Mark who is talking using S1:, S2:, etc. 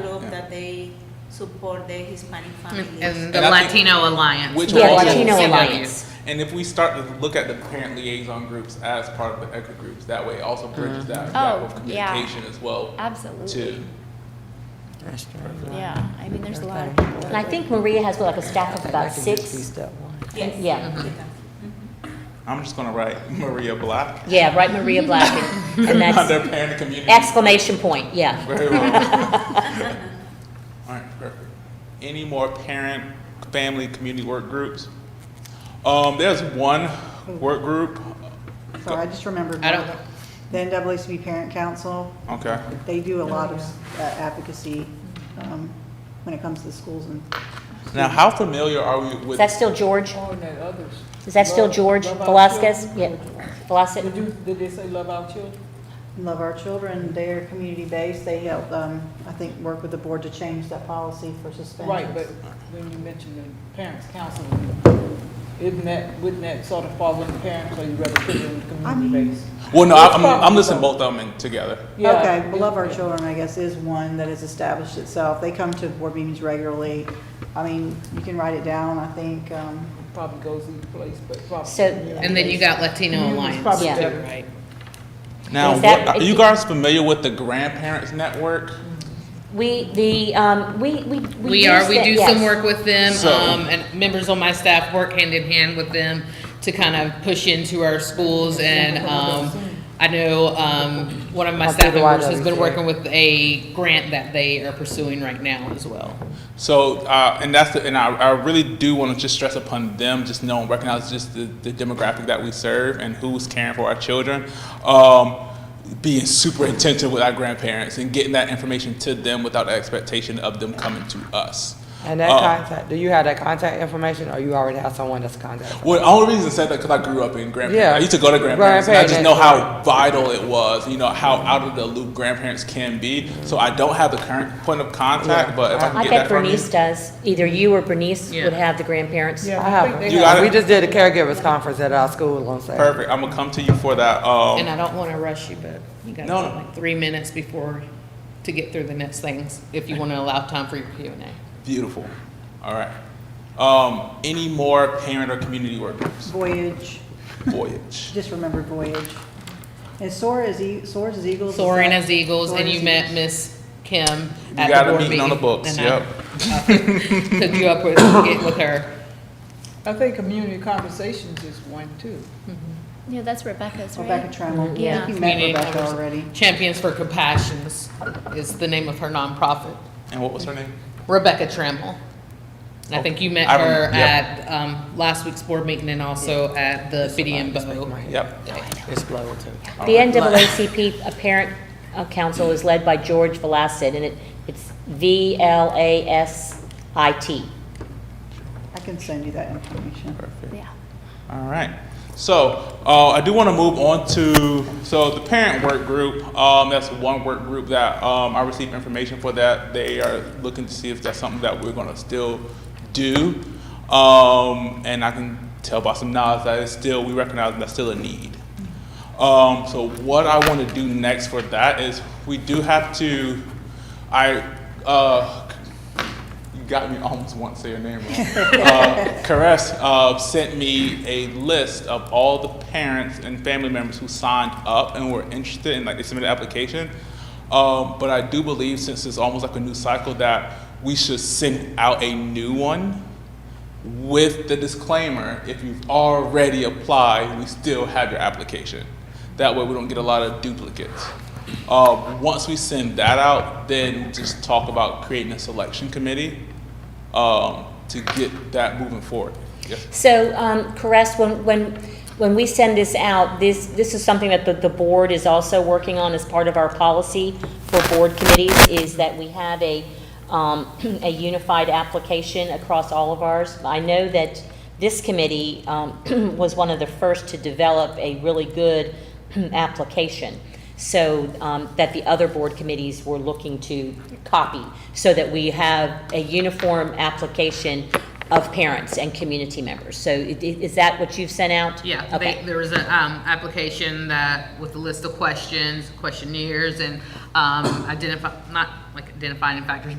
S1: that they support the Hispanic families.
S2: And the
S3: And I think-
S2: Latino Alliance.
S3: Which
S2: will
S3: Yeah,
S2: also
S3: Latino
S2: send
S4: Alliance.
S2: you.
S3: And if we start to look at the parent liaison groups as part of the ECHA groups, that way it also bridges that gap
S4: Oh,
S3: of
S4: yeah.
S3: communication as well
S4: Absolutely.
S3: too.
S4: Yeah, I mean, there's a lot of
S5: Okay.
S4: people.
S5: And I think Maria has like a staff of about six.
S1: Yes.
S5: Yeah.
S1: we can.
S3: I'm just gonna write Maria Black.
S5: Yeah, right, Maria Black, and that's
S3: Under parent community.
S5: exclamation point, yeah.
S3: Very well. All right, perfect. Any more parent, family, community work groups? Um, there's one work group,
S6: So I just remembered.
S2: I don't-
S6: The NAACP Parent Council,
S3: okay,
S6: they do a
S7: Oh,
S6: lot of uh, advocacy um, when it comes to schools and
S3: now how familiar are we
S5: Is
S3: with?
S5: that still George?
S7: Oh, and that others.
S5: Is that still
S7: Love-
S5: George
S7: Love Our
S5: Velasquez? Yeah,
S7: Children. Did
S5: Velasquez?
S7: you, did they say love our children?
S6: Love Our Children. They're community-based. They help, um, I think, work with the board to change that policy for suspensions.
S7: Right, but when you mentioned the parents' council, isn't that, wouldn't that sort of fall in the parents, or you rather put it in the
S6: I
S7: community
S6: mean-
S7: base?
S3: Well, no, I- I'm,
S7: It's
S3: I'm
S7: probably
S3: listing
S7: both.
S3: both of them together.
S7: Yeah,
S6: Okay,
S7: it-
S6: Love Our
S7: yeah.
S6: Children, I guess, is one that has established itself. They come to board meetings regularly. I mean, you can write it down, I think. um,
S7: Probably goes either place, but probably.
S5: So-
S2: And then you got Latino
S7: Community's
S2: Alliance
S7: probably
S5: Yeah.
S2: too,
S7: better.
S2: right?
S3: Now,
S5: Is that-
S3: what- are you guys familiar with the grandparents network?
S5: We, the, um, we, we.
S2: We are,
S5: use
S2: we
S5: that-
S2: do
S5: yes.
S2: some work with them,
S3: So-
S2: um, and members on my staff work hand in hand with them to kind of push into our schools and, um, I know, um, one of my staff members has been working with a grant that they are pursuing right now as well.
S3: So, uh, and that's the, and I, I really do want to just stress upon them, just know and recognize just the, the demographic that we serve and who's caring for our children. Um, being super intentional with our grandparents and getting that information to them without the expectation of them coming to us.
S8: And that
S3: Uh,
S8: contact, do you have that contact information or you already have someone that's contacted?
S3: Well, the only reason I said that because I grew up in grandparents.
S8: Yeah.
S3: I used to go to grandparents, and I just know
S8: Grandparent.
S3: how vital it was. You know how out of the loop grandparents can be. So I don't have the current point of contact, but if I can
S5: I
S3: get
S5: bet
S3: that from you.
S5: Bernice does. Either you or Bernice
S2: Yeah.
S5: would have the grandparents.
S8: I have,
S3: You got
S8: them. we
S3: it?
S8: just did a caregivers conference at our school on Saturday.
S3: Perfect. I'm gonna come to you for that. Um,
S2: And I don't wanna rush you, but you got
S3: No, no.
S2: like three minutes before, to get through the next things, if you wanna allow time for your Q and A.
S3: Beautiful. All right. Um, any more parent or community work groups?
S6: Voyage,
S3: Voyage.
S6: just remember Voyage. And SOAR is, E- SOAR's is Eagles. is
S2: Soaring
S6: that-
S2: as Eagles,
S6: Soar
S2: and
S6: is
S2: you met
S6: Eagles.
S2: Miss Kim at the
S3: You got a
S2: board
S3: meeting on the books,
S2: and I
S3: yep.
S2: Hooked you up with, get with her.
S7: I think community conversations is one too.
S4: Yeah, that's Rebecca's, right?
S6: Rebecca Trammell. I think
S4: Yeah.
S6: You met
S2: Community
S6: Rebecca
S2: convers-
S6: already.
S2: Champions for Compassions is the name of her nonprofit.
S3: And what was her name?
S2: Rebecca Trammell. And I think you met
S3: I
S2: her
S3: rem- yep.
S2: at, um, last week's board meeting and also at the Biddy and Bo.
S3: Yep.
S6: Oh,
S8: Explode too.
S5: The NAACP Parent uh, Council is led by George Velasquez, and it, it's V-L-A-S-I-T.
S6: I can send you that information.
S3: Perfect.
S4: Yeah.
S3: All right. So uh, I do want to move on to so the parent work group. Um, that's one work group that um, I received information for. That they are looking to see if that's something that we're going to still do. Um, and I can tell by some nods that it's still we recognize that's still a need. Um, so what I want to do next for that is we do have to. I uh, you got me almost once say your name wrong. uh, Caress uh, sent me a list of all the parents and family members who signed up and were interested in like they submitted an application. Um, but I do believe since it's almost like a new cycle that we should send out a new one with the disclaimer if you've already applied, we still have your application. That way, we don't get a lot of duplicates. Uh, once we send that out, then just talk about creating a selection committee um, to get that moving forward. Yes.
S5: So, um, Caress, when, when, when we send this out, this, this is something that the, the board is also working on as part of our policy for board committees, is that we have a, um, a unified application across all of ours. I know that this committee, um, was one of the first to develop a really good application. So, um, that the other board committees were looking to copy, so that we have a uniform application of parents and community members. So i- i- is that what you've sent out?
S2: Yeah, they,
S5: Okay.
S2: there was a, um, application that, with a list of questions, questionnaires, and, um, identify, not like identifying factors,